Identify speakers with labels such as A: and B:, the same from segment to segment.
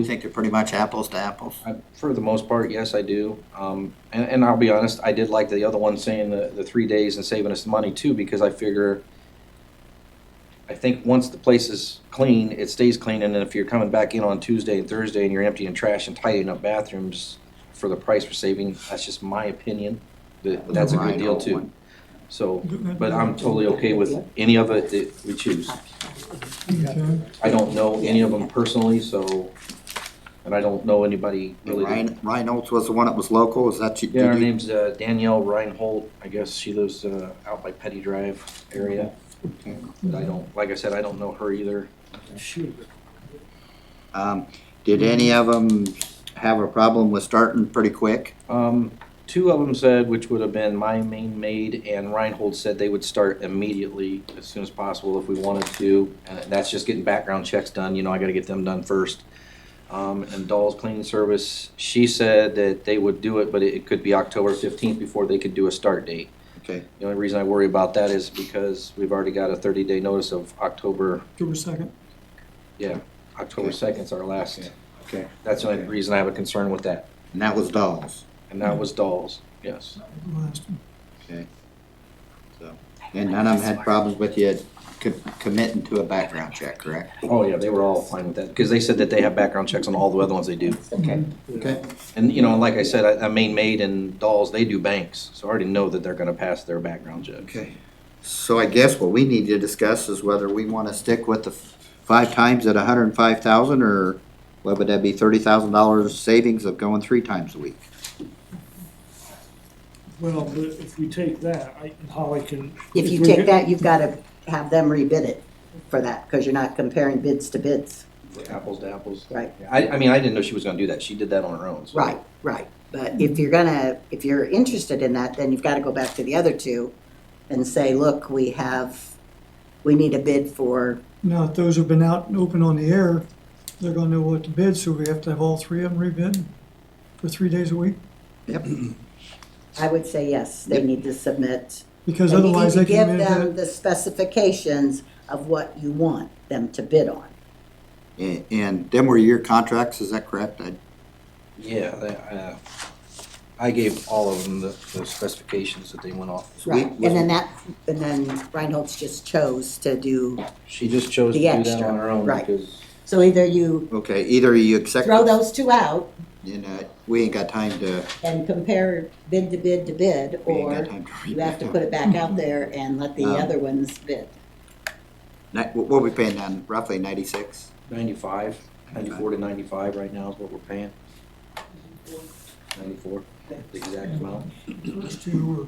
A: You think they're pretty much apples to apples?
B: I- For the most part, yes, I do. Um, and, and I'll be honest, I did like the other one saying the, the three days and saving us money too, because I figure, I think once the place is clean, it stays clean, and then if you're coming back in on Tuesday and Thursday and you're emptying trash and tidying up bathrooms for the price we're saving, that's just my opinion, that, but that's a good deal too. So, but I'm totally okay with any of it that we choose.
C: Okay.
B: I don't know any of them personally, so, and I don't know anybody really that
A: Ryan, Reynolds was the one that was local, is that you?
B: Yeah, her
A: did you-
B: name's uh, Danielle Reinhold. I guess she lives uh, out by Petty Drive area.
A: Mm-hmm.
B: But I don't, like I said, I don't know her either.
A: Um, did any of them have a problem with starting pretty quick?
B: Um, two of them said, which would have been my main maid and Reinhold said they would start immediately as soon as possible if we wanted to. And that's just getting background checks done. You know, I got to get them done first. Um, and Doll's Cleaning Service, she said that they would do it, but it it could be October 15th before they could do a start date.
A: Okay,
B: The only reason I worry about that is because we've already got a 30-day notice of October,
C: October second.
B: yeah, October
A: Okay.
B: 2nd is our last.
A: okay.
B: That's the only
A: Okay.
B: reason I have a concern with that.
A: And that was Dolls,
B: And that was Dolls, Hmm. yes.
C: Last one.
A: okay? So, And none of them had problems with you co- committing to a background check, correct?
B: Oh, yeah, they were all fine with that because they said that they have background checks on all the other ones they do.
A: Okay. Okay,
B: And, you know, like I said, I I mean, Maid and Dolls, they do banks. So I already know that they're going to pass their background check.
A: okay. So I guess what we need to discuss is whether we want to stick with the f- five times at hundred and five thousand or what would that be, thirty thousand dollars savings of going three times a week?
D: Well, but if we take that, I, and Holly can.
E: If you
D: we
E: take
D: get-
E: that, you've got to have them rebid it for that, because you're not comparing bids to bids.
B: Apples to apples.
E: Right.
B: I, I mean, I didn't know she was going to do that. She did that on her own. so-
E: Right, right. But if you're gonna, if you're interested in that, then you've got to go back to the other two and say, look, we have, we need a bid for,
C: Now, if those have been out and open on the air, they're gonna know what to bid, so we have to have all three of them rebid for three days a week?
A: Yep.
E: I would say yes, they need to submit.
C: Because
E: and you need
C: otherwise
E: to
C: they can
E: Give them
C: bid that.
E: the specifications of what you want them to bid on.
A: And, and them were your contracts, is that correct? I-
B: Yeah, they- uh, I gave all of them the the specifications that they went off.
A: so we-
E: Right, and then that, and then Reinhold's just chose to do,
B: She just chose to
E: The
B: do that
E: extra,
B: on her own
E: right.
B: because,
E: so either you
A: Okay, either you accept,
E: throw those two out
A: you know, we ain't got time to,
E: and compare bid to bid to bid,
A: we ain't got
E: or
A: time to read
E: you have to
A: that.
E: put it back out there and let the
A: Um,
E: other ones bid.
A: Ni- What what we paying on roughly ninety-six?
B: 95, 94 to 95 right now is what we're paying. 94, the exact amount.
C: Those two were uh,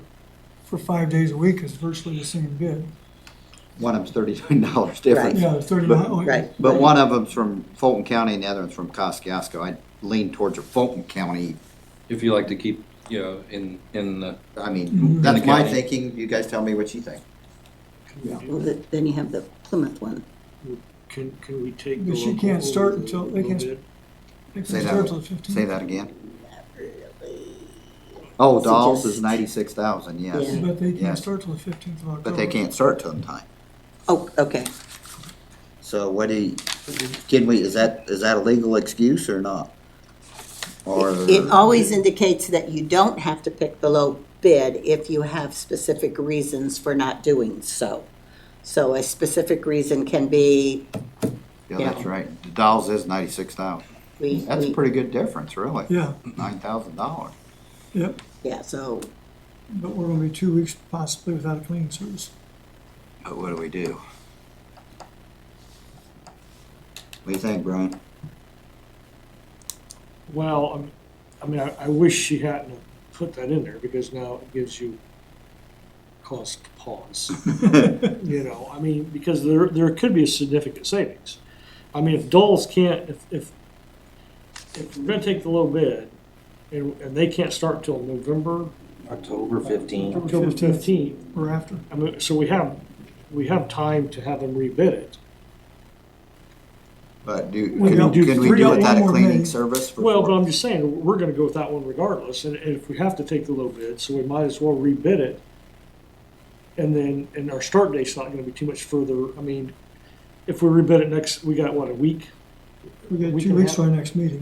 C: for five days a week is virtually the same bid.
A: One of them's thirty-nine dollars difference,
C: Yeah, thirty-nine. oh,
E: Right.
A: but one of them's from Fulton County and the other one's from Kosciuszko. I lean towards a Fulton County.
B: If you like to keep, you know, in, in the.
A: I mean,
E: Mm-hmm.
C: Mhm.
A: that's my
B: County.
A: thinking. You guys tell me what you think.
E: Well, th- then you have the Plymouth one.
D: Can, can we take the
C: But
D: local?
C: she can't start
D: over the-
C: until- they
D: the little
C: can't-
D: bit?
C: They
A: Say
C: can
A: that
C: start
A: one.
C: till the fifteenth.
A: Say that again. Oh, Dolls is
E: Suggest-
A: ninety-six thousand, yes,
E: Yeah.
C: But they
A: Yeah.
C: can't start till the fifteenth of October.
A: but they can't start till the time.
E: Oh, okay.
A: So what do you, can we, is that, is that a legal excuse or not? Or?
E: It always indicates that you don't have to pick the low bid if you have specific reasons for not doing so. So a specific reason can be,
A: Yeah, that's right. The Dolls is ninety-six thousand.
E: we,
A: That's a
E: we-
A: pretty good difference, really.
C: Yeah,
A: Nine thousand dollars.
C: yep,
E: yeah, so
C: but we're gonna be two weeks possibly without a cleaning service.
A: But what do we do? What do you think, Brian?
D: Well, I'm- I mean, I, I wish she hadn't put that in there because now it gives you cause to pause. You know, I mean, because there, there could be a significant savings. I mean, if Doles can't, if, if, if we're gonna take the low bid and, and they can't start till November,
B: October 15.
D: October
C: 15th.
D: fifteenth,
C: We're after.
D: I mean, so we have, we have time to have them rebid it.
A: But do,
C: We
A: can
C: got-
A: we can we
C: we
A: do
C: got
A: without
C: one
A: a
C: more
A: cleaning
C: minute.
A: service? for
D: Well,
A: four-
D: but I'm just saying, we're gonna go with that one regardless, and, and if we have to take the low bid, so we might as well rebid it. And then, and our start date's not gonna be too much further, I mean, if we rebid it next, we got, what, a week?
C: we got
D: We
C: two
D: can
C: weeks
D: have-
C: for our next meeting.